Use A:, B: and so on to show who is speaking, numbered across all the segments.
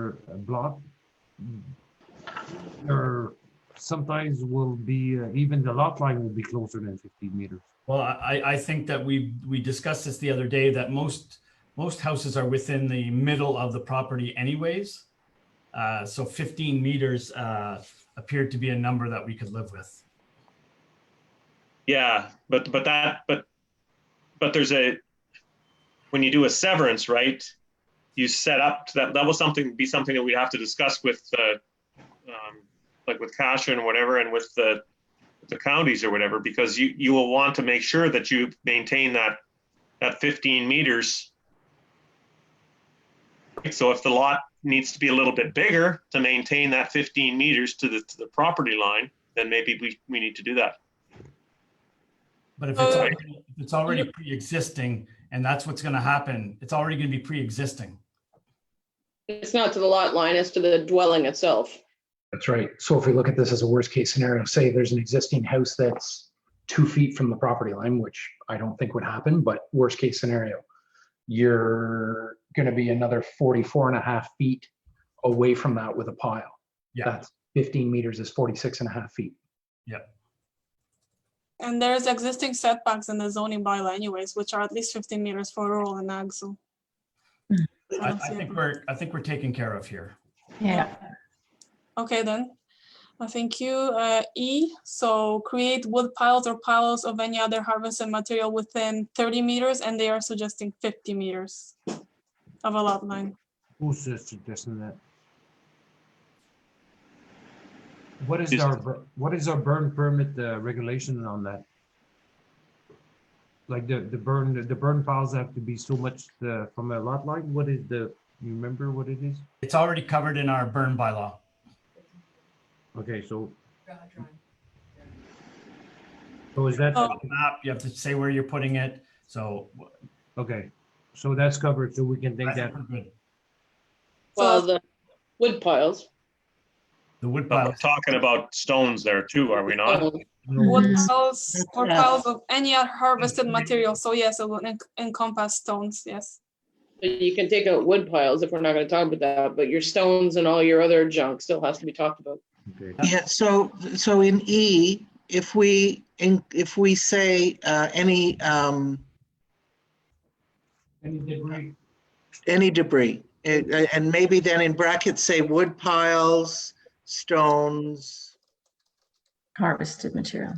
A: uh, block, there sometimes will be, uh, even the lot line will be closer than 15 meters.
B: Well, I, I think that we, we discussed this the other day, that most, most houses are within the middle of the property anyways. Uh, so 15 meters uh, appeared to be a number that we could live with.
C: Yeah, but, but that, but, but there's a, when you do a severance, right? You set up, to that, that was something, be something that we'd have to discuss with the, um, like with Kasha and whatever, and with the, the counties or whatever, because you, you will want to make sure that you maintain that, that fifteen meters. So if the lot needs to be a little bit bigger to maintain that fifteen meters to the, to the property line, then maybe we, we need to do that.
B: But if it's,
D: Uh,
B: already- if it's already pre-existing and that's what's going to happen, it's already going to be pre-existing.
D: It's not to the lot line, it's to the dwelling itself.
E: That's right. So if we look at this as a worst case scenario, say there's an existing house that's two feet from the property line, which I don't think would happen, but worst case scenario, you're going to be another 44 and a half feet away from that with a pile.
B: Yeah,
E: That's 15 meters is 46 and a half feet.
F: And there's existing setbacks in the zoning bylaw anyways, which are at least fifteen meters for rural and ag, so.
B: I,
F: don't
B: I
F: see a
B: think
F: problem.
B: we're, I think we're taken care of here.
G: Yeah,
F: Okay, then. Uh, Thank you. Uh, E, so create wood piles or piles of any other harvested material within thirty meters, and they are suggesting fifty meters of a lot line.
A: Who's uh, suggesting that? What is
C: Is-
A: our, bur- what is our burn permit uh, regulation on that? Like the, the burn, the burn piles have to be so much uh, from a lot line? What is the, you remember what it is?
B: It's already covered in our burn bylaw.
A: Okay, so. So is that,
F: Oh.
B: Map, you have to say where you're putting it. So
A: okay, so that's covered, so we can
B: I
A: take that,
B: think we're good.
D: Well,
F: So-
D: Uh, the wood piles.
B: the wood
C: But
B: pile
C: we're talking about stones there too, are we not?
D: um,
F: Wood
G: Mhm.
F: piles or
G: Yeah.
F: piles of any other harvested material, so yes, it will en- encompass stones, yes.
D: You can take out wood piles if we're not gonna talk about that, but your stones and all your other junk still has to be talked about.
A: okay,
H: Yeah, so, so in E, if we, in if we say uh, any, um,
A: Any debris?
H: any debris, and and maybe then in brackets say wood piles, stones,
G: harvested material.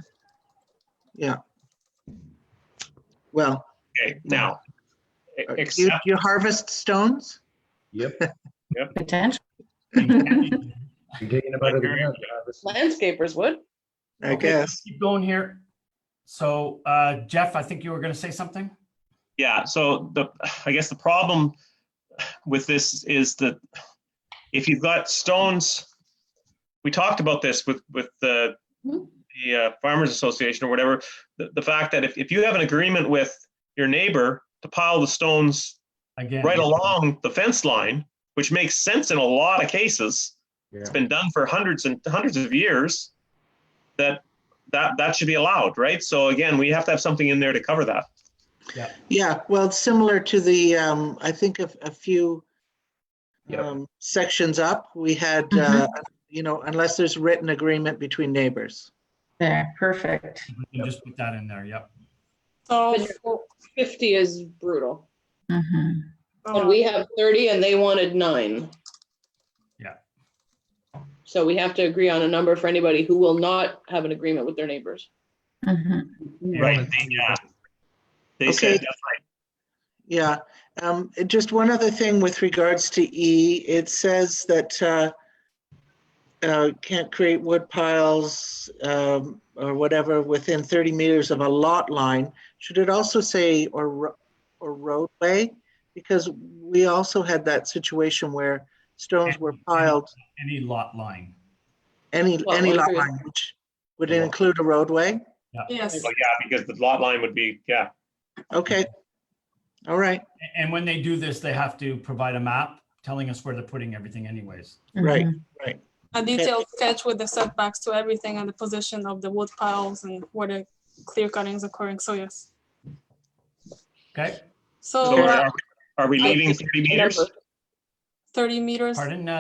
H: well, uh,
C: Okay, now. e-
H: you
C: Except,
H: you harvest stones?
G: Potential.
E: You're digging about it. again.
D: Landscapers would.
H: I
B: Okay,
H: guess.
B: Keep going here. So uh, Jeff, I think you were going to say something?
C: yeah, so the, I guess the problem with this is that if you've got stones, we talked about this with, with the,
D: Mhm.
C: the uh, Farmers Association or whatever, the, the fact that if, if you have an agreement with your neighbor to pile the stones
B: Again.
C: right along the fence line, which makes sense in a lot of cases. It's
A: Yeah.
C: been done for hundreds and hundreds of years. That that that should be allowed, right? So again, we have to have something in there to cover that.
H: Yeah, well, it's similar to the, um, I think of a few um, sections up, we had, uh, you know, unless there's written agreement between neighbors.
G: There, perfect.
B: We can just put that in there, yep.
F: So.
D: But your Fifty is brutal.
G: Mhm.
D: And
F: uh,
D: we have thirty and they wanted nine.
B: Yeah.
D: So we have to agree on a number for anybody who will not have an agreement with their neighbors.
G: Mhm.
C: Right. Yeah. They
H: Okay.
C: said that's
H: Yeah, um, and just one other thing with regards to E, it says that, uh, uh, can't create wood piles, um, or whatever within thirty meters of a lot line. Should it also say or, ro- or roadway? Because we also had that situation where stones were piled,
B: Any lot line.
H: any,
D: Well,
H: any
D: what
H: lot
D: if you're-
H: line, which would include a roadway?
F: Yes.
C: like, yeah, because the lot line would be, yeah.
H: Okay. All right,
B: A- And when they do this, they have to provide a map telling us where they're putting everything anyways.
H: right.
G: Mhm.
F: a detailed sketch with the setbacks to everything and the position of the wood piles and where the clear cutting is occurring, so yes.
B: Okay,
F: So
C: So
F: uh,
C: uh, are, are we leaving thirty meters?
D: Number.
F: thirty meters.
B: pardon, uh,